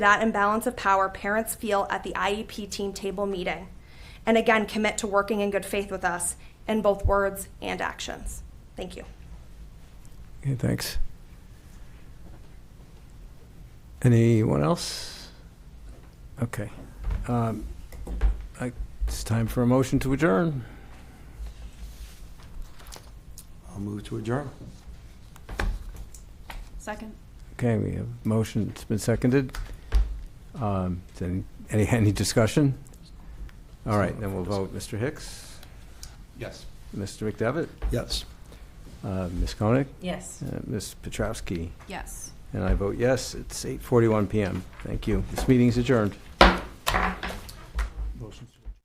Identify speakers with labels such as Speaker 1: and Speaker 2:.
Speaker 1: that imbalance of power parents feel at the IEP team table meeting. And again, commit to working in good faith with us in both words and actions. Thank you.
Speaker 2: Okay, thanks. Anyone else? Okay. Um, I- It's time for a motion to adjourn.
Speaker 3: I'll move to adjourn.
Speaker 4: Second.
Speaker 2: Okay, we have motion, it's been seconded. Um, is Any, any any discussion? All right, then we'll vote. Mr. Hicks?
Speaker 3: Yes.
Speaker 2: Mr. McDevitt?
Speaker 3: Yes.
Speaker 2: Uh, Ms. Koenig?
Speaker 4: Yes.
Speaker 2: Uh, Ms. Petrowski?
Speaker 4: Yes.
Speaker 2: And I vote yes. It's 8:41 PM. Thank you. This meeting's adjourned.